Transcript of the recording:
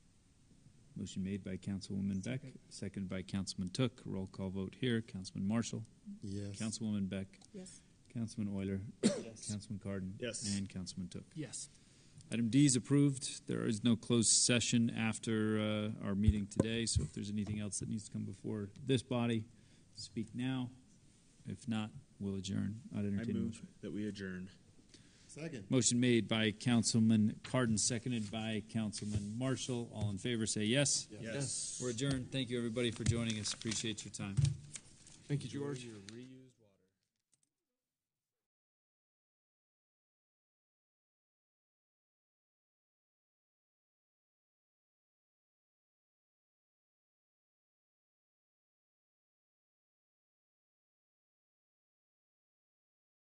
Motion made by Councilwoman Beck, seconded by Councilman Took. Roll call vote here. Councilman Marshall, Yes. Councilwoman Beck, Yes. Councilman Euler, Yes. Councilman Cardon, Yes. and Councilman Took. Yes. Item D is approved. There is no closed session after uh, our meeting today, so if there's anything else that needs to come before this body, speak now. If not, we'll adjourn. I'd I entertain a move motion. that we adjourn. Second. Motion made by Councilman Cardon, seconded by Councilman Marshall. All in favor, say yes. Yes. We're adjourned. Thank you, everybody, for joining us. Appreciate your time. Thank you, George.